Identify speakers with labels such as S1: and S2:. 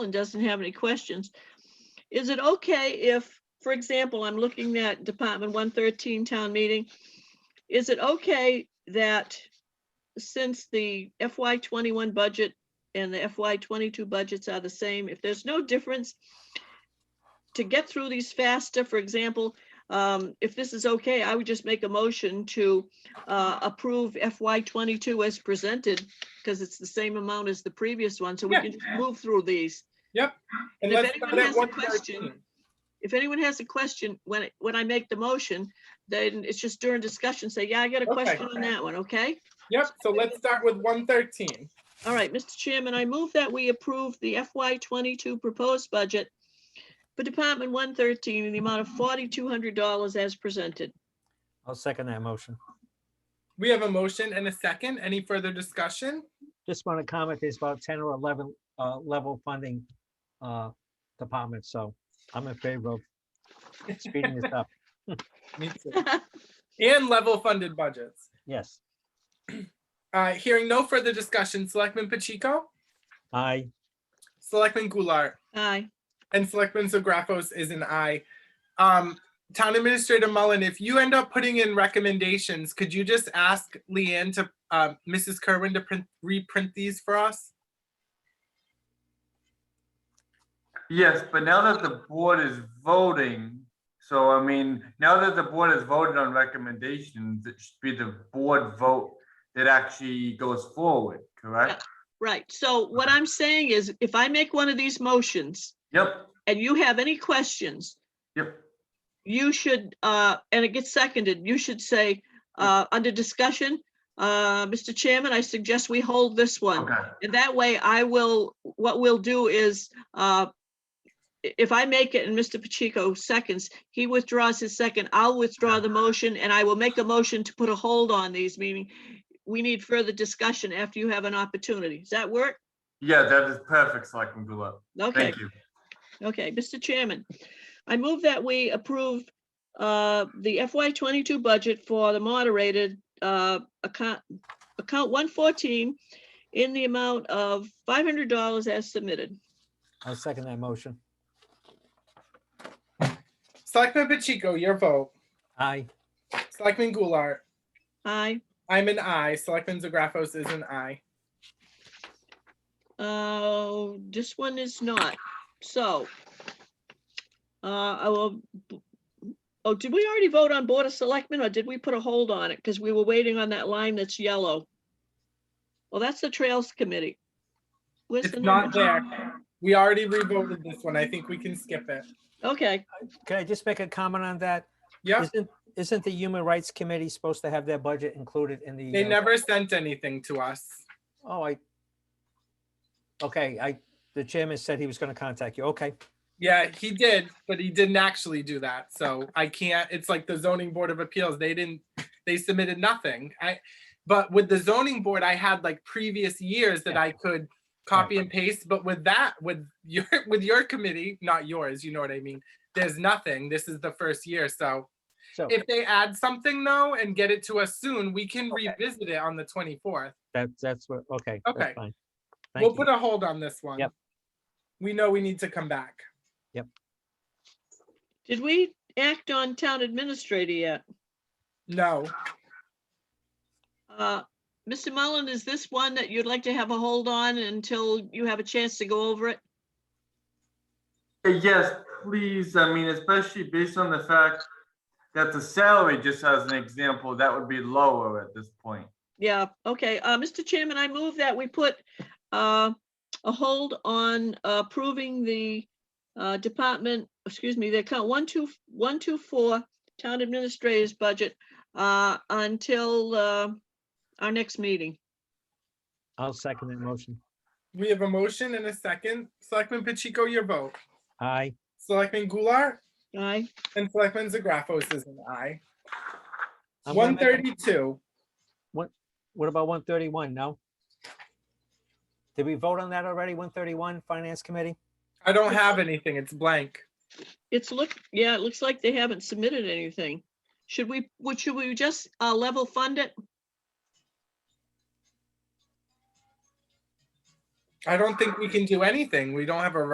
S1: and doesn't have any questions. Is it okay if, for example, I'm looking at Department one thirteen town meeting? Is it okay that since the FY twenty-one budget and the FY twenty-two budgets are the same, if there's no difference to get through these faster, for example, um, if this is okay, I would just make a motion to uh, approve FY twenty-two as presented because it's the same amount as the previous one, so we
S2: Yeah.
S1: can just move through these.
S2: And
S1: if
S2: let's
S1: anyone
S2: start at
S1: has a
S2: 113.
S1: question- If anyone has a question, when, it- when I make the motion, then it's just during discussion, say, yeah, I got a
S2: Okay.
S1: question on that one, okay?
S2: Yep, so let's start with one thirteen.
S1: All right, Mr. Chairman, I move that we approve the FY twenty-two proposed budget for Department one thirteen in the amount of forty-two hundred dollars as presented.
S3: I'll second that motion.
S2: We have a motion and a second. Any further discussion?
S3: Just want to comment, there's about 10 or 11 uh, level funding uh, departments, so I'm in favor of speeding this up.
S2: Me too. And level funded budgets.
S3: Yes,
S2: Uh, hearing no further discussion, Selectman Pacheco,
S3: I,
S2: Selectman Goulart,
S1: Aye,
S2: and Selectman Zagrafos is an aye. Um, Town Administrator Mullen, if you end up putting in recommendations, could you just ask Leanne to, uh, Mrs. Kerwin to print, reprint these for us?
S4: Yes, but now that the board is voting, so I mean, now that the board has voted on recommendations, it should be the board vote that actually goes forward, correct?
S1: right. So what I'm saying is if I make one of these motions
S4: Yep,
S1: and you have any questions,
S4: yep,
S1: you should, uh, and it gets seconded, you should say, uh, under discussion, uh, Mr. Chairman, I suggest we hold this one.
S4: okay,
S1: And that way I will, what we'll do is, uh, i- if I make it and Mr. Pacheco seconds, he withdraws his second, I'll withdraw the motion and I will make a motion to put a hold on these, meaning we need further discussion after you have an opportunity. Does that work?
S4: yeah, that is perfect, Selectman Goulart,
S1: Okay,
S4: thank you.
S1: okay. Mr. Chairman, I move that we approve uh, the FY twenty-two budget for the moderated uh, account, account one fourteen in the amount of five hundred dollars as submitted.
S3: I'll second that motion.
S2: Selectman Pacheco, your vote.
S3: I,
S2: Selectman Goulart,
S1: Aye.
S2: I'm an aye. Selectman Zagrafos is an aye.
S1: Uh, this one is not, so. Uh, I will, oh, did we already vote on Board of Selectmen or did we put a hold on it? Because we were waiting on that line that's yellow. Well, that's the Trails Committee. Where's
S2: It's
S1: the
S2: not
S1: number?
S2: there. We already revoted this one. I think we can skip it.
S1: Okay,
S3: could I just make a comment on that?
S2: Yep,
S3: Isn't, isn't the Human Rights Committee supposed to have their budget included in the?
S2: they
S3: uh,
S2: never sent anything to us.
S3: Oh, I, okay, I, the chairman said he was going to contact you. Okay,
S2: Yeah, he did, but he didn't actually do that. So I can't, it's like the zoning board of appeals. They didn't, they submitted nothing. I, but with the zoning board, I had like previous years that I could copy and paste, but with that, with your, with your committee, not yours, you know what I mean? There's nothing. This is the first year, so
S3: so
S2: if they add something though and get it to us soon, we can
S3: Okay.
S2: revisit it on the twenty-fourth.
S3: that, that's what, okay. that's
S2: Okay.
S3: fine.
S2: We'll
S3: Thank you.
S2: put a hold on this one.
S3: Yep.
S2: We know we need to come back.
S1: did we act on Town Administrator yet?
S2: No,
S1: Uh, Mr. Mullen, is this one that you'd like to have a hold on until you have a chance to go over it?
S4: Uh, Yes, please, I mean, especially based on the fact that the salary, just as an example, that would be lower at this point.
S1: Yeah, okay. Uh, Mr. Chairman, I move that we put uh, a hold on approving the uh, department, excuse me, the account one, two, one, two, four, town administrator's budget uh, until uh, our next meeting.
S3: I'll second that motion.
S2: we have a motion and a second. Selectman Pacheco, your vote.
S3: Aye.
S2: Selectman Goulart
S1: Aye.
S2: and Selectman Zagrafos is an aye.
S3: I'm gonna
S2: One
S3: make a-
S2: thirty-two.
S3: What about one thirty-one? No? Did we vote on that already? One thirty-one, Finance Committee?
S2: I don't have anything. It's blank.
S1: It's look, yeah, it looks like they haven't submitted anything. Should we, would, should we just uh, level fund it?
S2: I don't think we can do anything. We don't have a